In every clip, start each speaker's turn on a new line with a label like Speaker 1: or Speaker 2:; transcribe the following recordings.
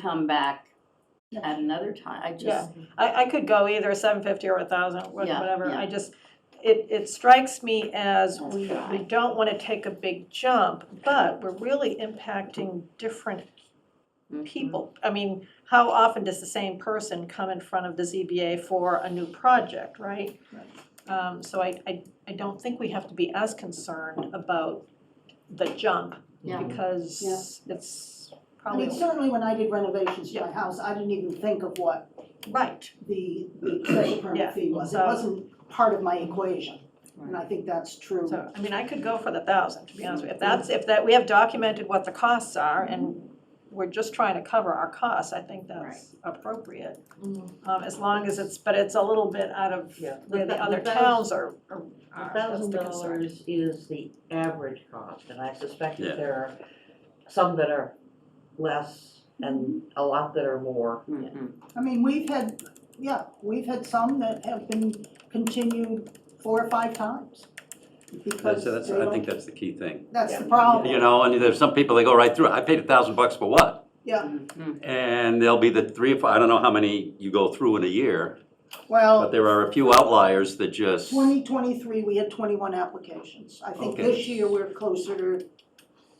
Speaker 1: come back
Speaker 2: Yes.
Speaker 1: at another time. I just,
Speaker 2: Yeah. I, I could go either seven fifty or a thousand,
Speaker 1: Yeah,
Speaker 2: whatever,
Speaker 1: yeah.
Speaker 2: I just, it, it strikes me as
Speaker 1: Let's
Speaker 2: we,
Speaker 1: try.
Speaker 2: we don't wanna take a big jump, but we're really impacting different
Speaker 1: Mhm.
Speaker 2: people. I mean, how often does the same person come in front of the ZBA for a new project, right? Um, so I, I, I don't think we have to be as concerned about the jump,
Speaker 1: Yeah.
Speaker 2: because it's
Speaker 3: I
Speaker 2: probably,
Speaker 3: mean, certainly when I did renovations to my house, I didn't even think of what
Speaker 2: right,
Speaker 3: the the special
Speaker 2: Yeah,
Speaker 3: permit fee was. It
Speaker 2: so-
Speaker 3: wasn't part of my equation,
Speaker 1: Mm-hmm.
Speaker 3: and I think that's true.
Speaker 2: So, I mean, I could go for the thousand, to be honest with you. If that's, if that, we have documented what the costs are and we're just trying to cover our costs, I think that's appropriate. Um, as long as it's, but it's a little bit out of
Speaker 4: Yeah.
Speaker 2: where
Speaker 4: Mm-hmm. The
Speaker 2: the
Speaker 4: thou-
Speaker 2: other
Speaker 4: the thou-
Speaker 2: towns are, are,
Speaker 4: A
Speaker 2: are, that's
Speaker 4: thousand
Speaker 2: the concern.
Speaker 4: dollars is the average cost, and I suspect
Speaker 5: Yeah.
Speaker 4: that there are some that are less and a lot that are more.
Speaker 3: Hmm.
Speaker 1: Mhm.
Speaker 3: I mean, we've had, yeah, we've had some that have been continued four or five times.
Speaker 5: That's,
Speaker 3: Because
Speaker 5: that's,
Speaker 3: they
Speaker 5: I
Speaker 3: don't-
Speaker 5: think that's the key thing.
Speaker 3: that's the
Speaker 5: You
Speaker 3: problem,
Speaker 5: know, and there's some people, they go right through, it. I paid a thousand bucks for what?
Speaker 3: yeah,
Speaker 1: Mhm.
Speaker 5: And there'll be the three, or four- I don't know how many you go through in a year, but
Speaker 3: well,
Speaker 5: there are a few outliers that just,
Speaker 3: twenty twenty-three, we had twenty-one applications. I think
Speaker 5: Okay.
Speaker 3: this year, we're closer to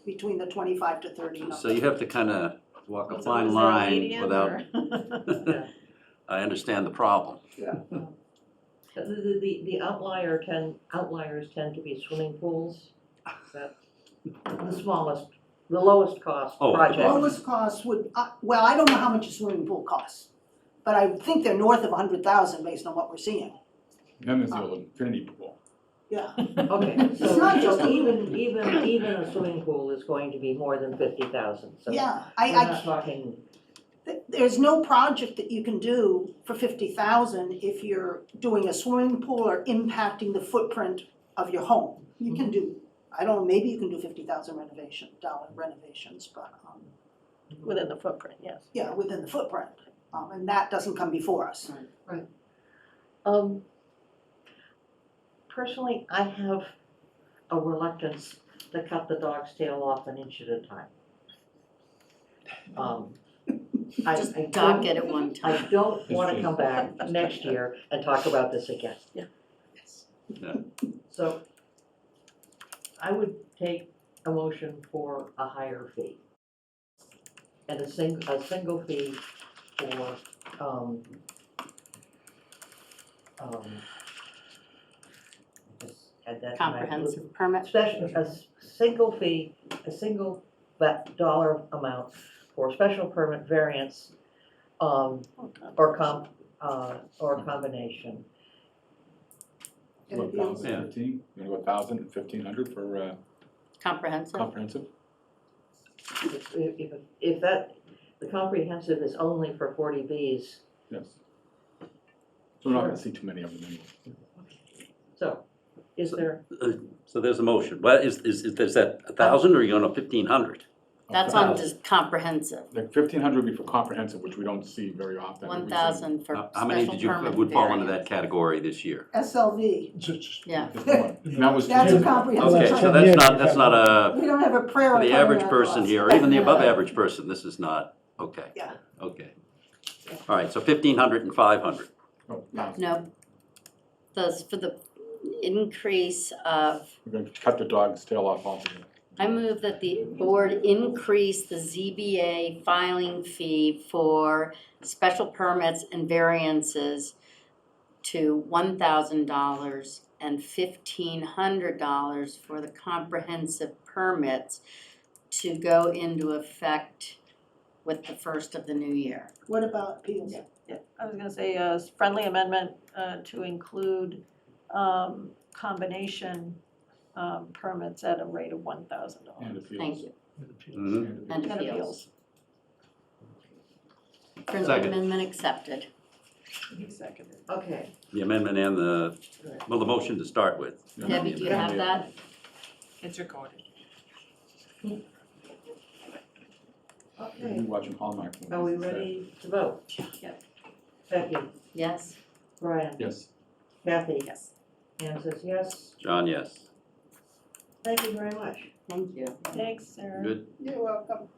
Speaker 3: between the twenty-five to thirty number.
Speaker 5: so you have to kind of walk a
Speaker 2: Is
Speaker 5: fine
Speaker 2: there
Speaker 5: line
Speaker 2: median
Speaker 5: without,
Speaker 2: or-
Speaker 5: I understand the problem.
Speaker 4: The, the- the, the outlier tend, outliers tend to be swimming pools, that, the smallest, the lowest cost
Speaker 5: Oh, the
Speaker 4: project.
Speaker 5: bottom.
Speaker 3: lowest cost would, I- well, I don't know how much a swimming pool costs, but I think they're north of a hundred thousand based on what we're seeing.
Speaker 6: Then there's the old infinity pool.
Speaker 3: Yeah,
Speaker 4: Okay, so,
Speaker 3: It's not just-
Speaker 4: so even, even, even a swimming pool is going to be more than fifty thousand, so.
Speaker 3: yeah,
Speaker 4: We're
Speaker 3: I,
Speaker 4: not
Speaker 3: I,
Speaker 4: talking,
Speaker 3: th- there's no project that you can do for fifty thousand if you're doing a swimming pool or impacting the footprint of your home. You can do, I don't, know, maybe you can do fifty thousand renovation, dollar renovations, but, um,
Speaker 2: Within the footprint, yes.
Speaker 3: yeah, within the footprint. Um, and that doesn't come before us.
Speaker 4: um, personally, I have a reluctance to cut the dog's tail off an inch at a time. Um, I, I
Speaker 1: Just
Speaker 4: don't-
Speaker 1: dock it at one
Speaker 4: I
Speaker 1: time.
Speaker 4: don't wanna come back next year and talk about this again.
Speaker 2: Yeah.
Speaker 5: Yeah.
Speaker 4: So I would take a motion for a higher fee. And a sing, a single fee for, um, um, I just had that in my-
Speaker 1: Comprehensive permit.
Speaker 4: Special, a s- single fee, a single va- dollar amount for special permit variance, um,
Speaker 7: Oh,
Speaker 4: or com, uh, or combination.
Speaker 3: And
Speaker 6: What,
Speaker 3: if you-
Speaker 5: Yeah.
Speaker 6: thousand fifteen? You wanna go thousand, fifteen hundred for uh,
Speaker 1: Comprehensive.
Speaker 6: comprehensive?
Speaker 4: If, if, if that, the comprehensive is only for forty Bs,
Speaker 6: Yes. So we're not gonna see too many of them anyway.
Speaker 4: so is there,
Speaker 5: So there's a motion. Well, is, is, is there's that a thousand or are you going to fifteen hundred?
Speaker 1: That's
Speaker 6: Okay.
Speaker 1: on just comprehensive.
Speaker 6: Like fifteen hundred would be for comprehensive, which we don't see very often.
Speaker 1: One thousand for
Speaker 5: How
Speaker 1: special permit.
Speaker 5: Uh, how many did you, would fall into that category this year?
Speaker 3: SLV,
Speaker 1: Yeah.
Speaker 6: That was.
Speaker 3: that's
Speaker 6: two years
Speaker 3: a
Speaker 6: ago.
Speaker 3: comprehensive.
Speaker 5: Okay, so
Speaker 3: plan.
Speaker 5: that's not, that's not a.
Speaker 3: We don't have a prayer
Speaker 5: For
Speaker 3: on
Speaker 5: the
Speaker 3: top of
Speaker 5: average
Speaker 3: that
Speaker 5: person
Speaker 3: glass.
Speaker 5: here, or even the above average person, this is not, okay.
Speaker 3: Yeah.
Speaker 5: Okay. All right, so fifteen hundred and five hundred.
Speaker 6: Oh, 1,000.
Speaker 1: No. Those, for the increase of,
Speaker 6: We're gonna cut the dog's tail off altogether.
Speaker 1: I move that the board increase the ZBA filing fee for special permits and variances to one thousand dollars and fifteen hundred dollars for the comprehensive permits to go into effect with the first of the new year.
Speaker 3: What about appeals?
Speaker 2: Yeah. Yeah, I was gonna say, uh, s- friendly amendment, uh, to include, um, combination, um, permits at a rate of one thousand
Speaker 6: And
Speaker 2: dollars.
Speaker 6: appeals.
Speaker 1: Thank you. And
Speaker 5: Mhm.
Speaker 2: And
Speaker 1: appeals.
Speaker 2: appeals.
Speaker 1: Friendly
Speaker 5: Second.
Speaker 1: amendment accepted.
Speaker 4: okay,
Speaker 5: The amendment and the, well, the motion to start with.
Speaker 6: Yeah.
Speaker 1: Debbie, do you have that?
Speaker 7: It's recorded.
Speaker 6: We'll
Speaker 4: okay,
Speaker 6: be watching Hallmark movies.
Speaker 4: are we
Speaker 6: instead.
Speaker 4: ready to vote?
Speaker 7: Yeah.
Speaker 4: Becky,
Speaker 1: Yes?
Speaker 4: Brian,
Speaker 6: Yes.
Speaker 4: Kathy,
Speaker 7: Yes.
Speaker 4: Anne says yes,
Speaker 5: John, yes.
Speaker 4: thank you very much.
Speaker 1: Thank you.
Speaker 2: Thanks, Sarah.
Speaker 5: Good.
Speaker 3: You're welcome.